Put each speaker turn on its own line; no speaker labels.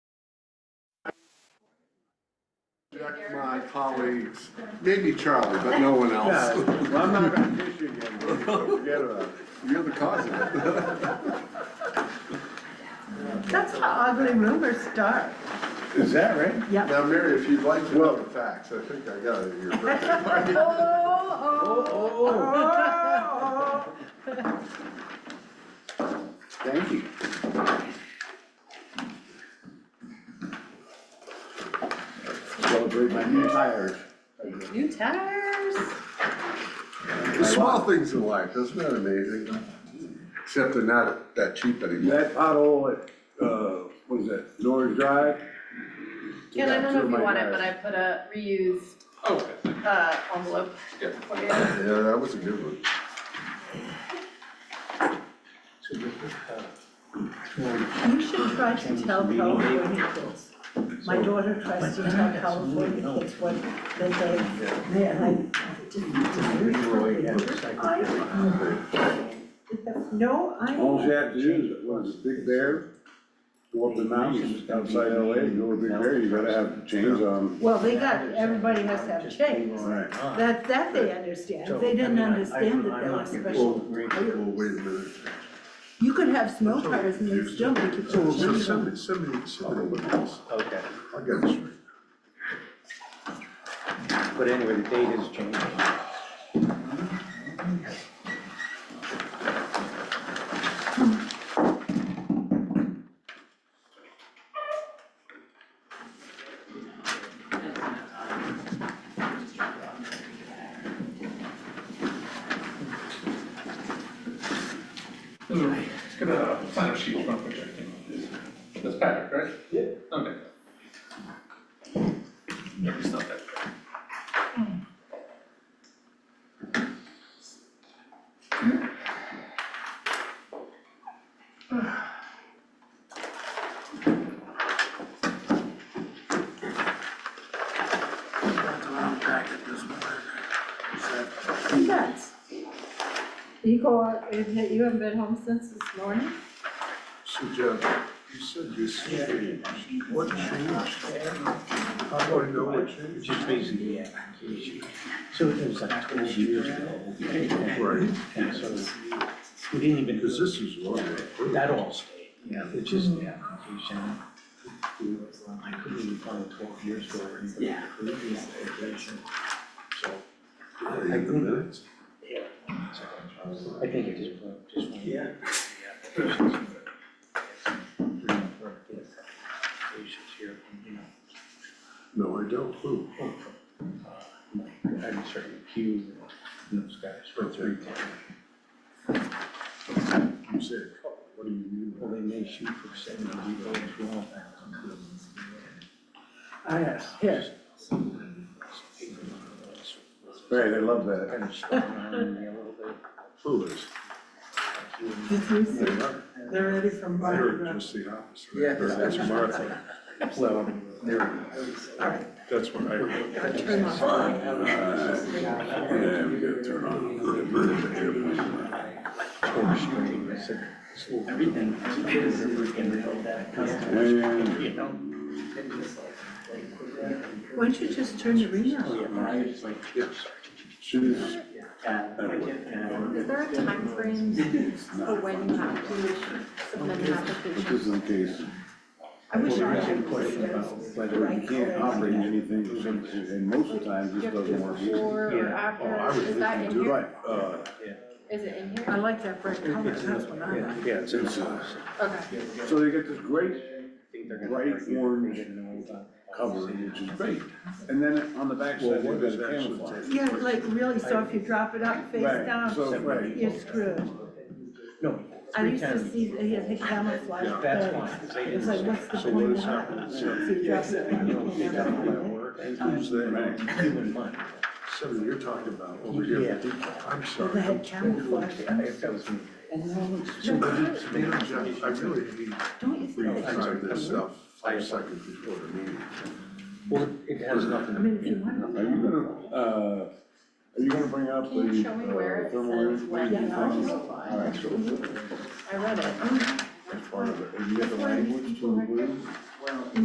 Jack, my colleagues, maybe Charlie, but no one
Yeah,
else.
well, I'm not gonna dish you again, Dave, so forget about it.
You're the cause of it.
That's how ugly rumors start.
Is that right?
Yep.
Now, Mary, if you'd like to know the facts, I think I got it here.
Oh, oh,
Oh,
oh.
Thank you.
celebrate my new tires.
New tires.
The small things in life, isn't that amazing? Except they're not that cheap anymore.
That pothole at, uh, what is that, Norris Drive?
Ken, I don't know if
Yeah,
you want it,
my
but I put a reused,
Okay,
uh, envelope.
Yeah.
for you.
Yeah, that was a good one.
You should try to tell California kids. My daughter tries to tell California kids what they did. They're like, I have no
All you
idea.
have to do is, what is it, Big Bear? Go up the mountains outside LA, go to Big Bear, you gotta have chains on.
Well, they got, everybody has to have chains.
Right.
That, that they understand. They didn't understand that they were special. Oh,
Well, well, wait a minute.
You could have snow tires and they still make you
So,
feel
so
really
send me, send me, send me what else.
Okay,
I'll get this right.
but anyway, the date has changed.
let's get a sign up sheet from Patrick. That's Patrick, right? Yeah. Okay. No, he's not that.
Nuts. You go out, you haven't been home since this morning?
So Jeff, you said this changed. What changed? How do I know what changed?
Just basically, yeah. So it was like twelve years ago.
Right,
And so we didn't even.
because this is what I approved.
That all stayed. Yeah. It's just the application. I couldn't even find it twelve years ago or anything. Yeah. So
Yeah, in the minutes.
I think it just, just. Yeah.
No, I don't. Who?
I'm certain Q and those guys for three ten.
You said a couple. What do you mean?
Well, they may shoot for seventy, you go to one thousand. I asked, yes.
Right, they love that.
Kind of spun around me a little bit.
Who is?
They're ready for
I heard just the opposite. Yeah. That's Martha.
Well, there.
That's what I heard.
Turn off.
Yeah, we gotta turn on.
Everything.
And
You know?
Why don't you just turn your ring off?
she's,
Is there a timeframe for when you have to submit an
this
application?
is the case.
I wish
Well,
I
there is a
had.
question about whether you can't operate anything, and most of the time, this doesn't work either.
Before or
Oh, I
after,
was
is that in
listening to,
here?
right, uh,
Is it in
I
here?
like that bright color, that's what I like.
Yeah, it's.
it's, uh,
Okay,
so they get this great bright orange cover,
cover.
which is great, and then on the backside, they've got a camouflage.
Yeah, like really, so if you drop it up face
Right,
down,
so, right,
you're screwed.
No.
I used to
three times.
see, that he had the camouflage,
That's
but
fine. 'cause they
it's
didn't
like,
say-
what's the
So
point
what
of
is
that?
happening?
So if you drop it,
You know,
you
they got all that
can't-
work.
Who's
Right.
that?
Human money.
Seven, you're talking about over here. I'm
They
sorry.
had camouflage,
If that was me.
and it all looks
So,
stupid,
you know, Jeff, I really hate
don't
We
you
Oh,
think?
decide this stuff five seconds before the meeting.
Well, it has nothing.
I mean, if you want.
Are you gonna, uh, are you gonna bring up the?
Can you show me where
uh,
it
thermal
says
imaging
when
thing?
you have to apply?
All right, so
I read it.
that's part of it, have you got the language to include?